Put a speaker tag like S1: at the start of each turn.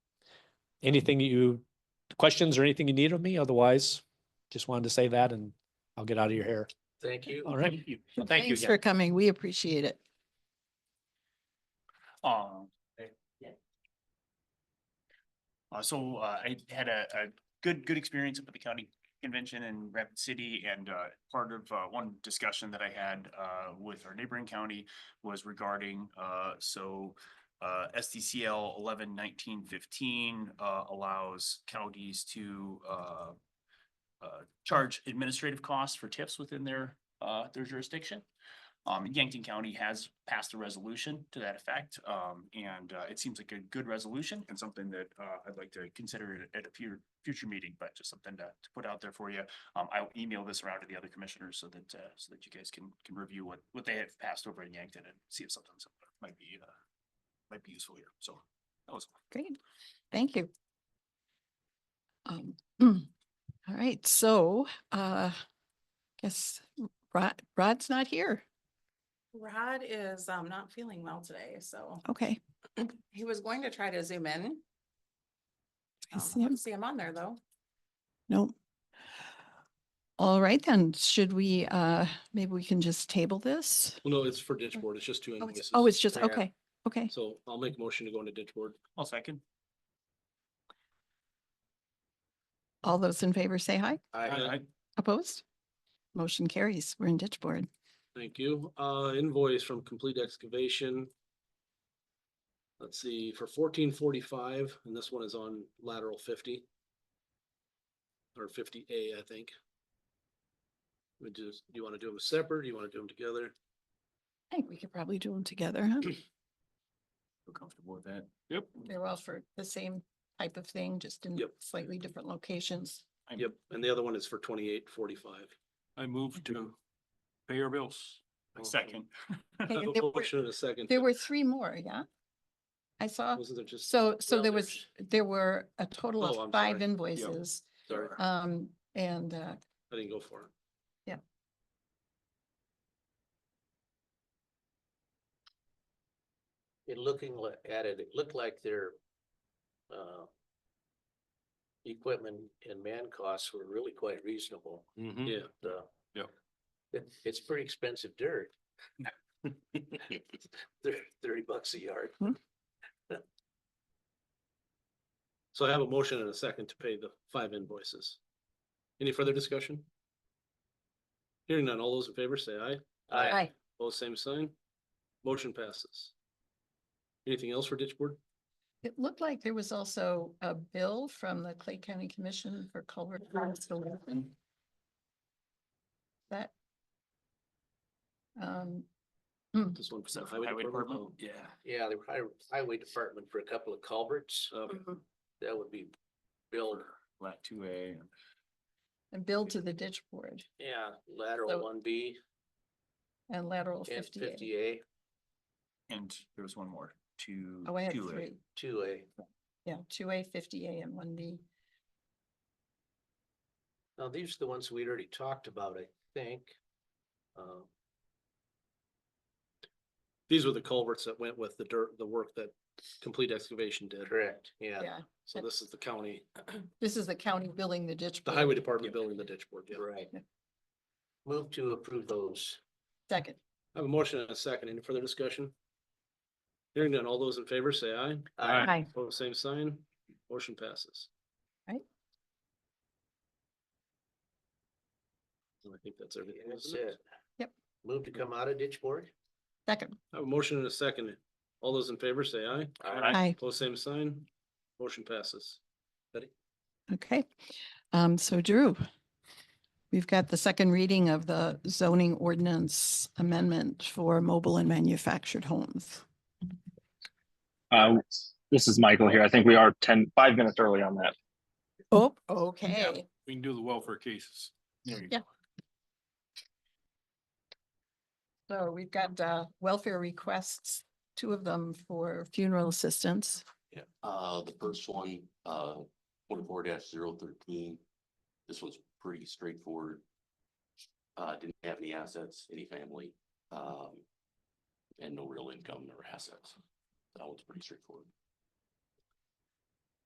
S1: anything you, questions or anything you need of me? Otherwise, just wanted to say that and I'll get out of your hair.
S2: Thank you.
S1: All right.
S3: Thank you.
S4: Thanks for coming. We appreciate it.
S3: Um. Uh, so, uh, I had a, a good, good experience up at the county convention in Rapid City and, uh, part of, uh, one discussion that I had, uh, with our neighboring county was regarding, uh, so, uh, SDCL eleven nineteen fifteen, uh, allows counties to, uh, uh, charge administrative costs for tips within their, uh, their jurisdiction. Um, Yankton County has passed a resolution to that effect, um, and, uh, it seems like a good resolution and something that, uh, I'd like to consider at- at a future, future meeting, but just something to, to put out there for you. Um, I'll email this around to the other commissioners so that, uh, so that you guys can, can review what, what they have passed over in Yankton and see if something similar might be, uh, might be useful here, so. that was
S4: Great. Thank you. Um, All right, so uh, guess Rod, Rod's not here.
S5: Rod is um not feeling well today, so
S4: Okay.
S5: he was going to try to zoom in.
S4: I
S5: Um,
S4: see
S5: don't
S4: him.
S5: See him on there, though.
S4: Nope. All right, then, should we, uh, maybe we can just table this?
S2: Well, no, it's for ditch board. It's just two
S4: Oh, it's-
S2: invoices.
S4: Oh, it's just,
S2: Yeah.
S4: okay, okay.
S2: So I'll make a motion to go into ditch board.
S3: I'll second.
S4: All those in favor say aye.
S2: Aye.
S4: Opposed? Motion carries. We're in ditch board.
S2: Thank you. Uh, invoice from Complete Excavation. Let's see, for fourteen forty-five, and this one is on lateral fifty. Or fifty A, I think. We just, do you want to do them separate? Do you want to do them together?
S4: I think we could probably do them together, huh?
S3: Feel comfortable with that? Yep.
S4: They're all for the same type of thing, just in
S2: Yep.
S4: slightly different locations.
S2: Yep, and the other one is for twenty-eight forty-five.
S6: I move to pay your bills.
S3: Second.
S4: Okay, and there were-
S2: Motion in a second.
S4: There were three more, yeah? I saw,
S2: Wasn't there just?
S4: so, so
S2: well,
S4: there was, there were a total
S2: Oh, I'm
S4: of five
S2: sorry.
S4: invoices.
S2: Sorry, I
S4: Um, and, uh,
S2: didn't go for it.
S7: it looking li- at it, it looked like their uh equipment and man costs were really quite reasonable,
S2: Mm-hmm. Yeah,
S7: the
S6: Yep.
S7: It, it's pretty expensive dirt. Thirty, thirty bucks a yard.
S2: so I have a motion and a second to pay the five invoices. Any further discussion? Hearing none, all those in favor say aye.
S7: I,
S4: aye.
S2: Both same sign. Motion passes. Anything else for ditch board?
S4: It looked like there was also a bill from the Clay County Commission for culvert installation. That. Um,
S2: This one
S3: Was
S2: for the
S3: that
S2: highway department?
S3: Yeah.
S7: yeah, the hi- highway department for a couple of culverts,
S2: Oh, okay.
S4: Mm-hmm.
S7: that would be built,
S3: Lat two A.
S4: a bill to the ditch board
S7: yeah,
S4: So-
S7: lateral one B
S4: and lateral
S7: and
S4: fifty.
S7: fifty A,
S3: And there was one more, two.
S4: Oh, I had
S3: 2A.
S4: three.
S7: two A.
S4: Yeah, two A, fifty A and one B.
S7: Now, these are the ones we'd already talked about, I think. Uh,
S2: These were the culverts that went with the dirt, the work that complete excavation did.
S7: correct, yeah.
S4: Yeah,
S2: So this is the county,
S4: this is the county billing the ditch.
S2: the
S4: board.
S2: highway department building the ditch board. yeah.
S7: Right.
S4: Yeah.
S7: Move to approve those.
S4: Second,
S2: I have a motion and a second. Any further discussion? Hearing none, all those in favor say aye.
S7: Aye.
S4: Aye.
S2: Pose same sign, motion passes.
S4: Right.
S2: And I think that's everything.
S7: That's
S2: isn't it?
S7: it.
S4: Yep.
S7: Move to come out of ditch board?
S4: second,
S2: I have a motion and a second. All those in favor say aye.
S3: Aye.
S4: aye.
S2: Pose same sign, motion passes.
S4: Okay, um, so Drew, we've got the second reading of the zoning ordinance amendment for mobile and manufactured homes.
S8: Uh, this is Michael here. I think we are ten, five minutes early on that.
S4: Oh, okay.
S6: We can do the welfare cases.
S3: There you
S4: Yeah. So we've got, uh, welfare requests, two of them for funeral assistance.
S9: Yeah, uh, the first one, uh, twenty-four 13 This one's pretty straightforward. Uh, didn't have any assets, any family, um, and no real income or assets. That one's pretty straightforward.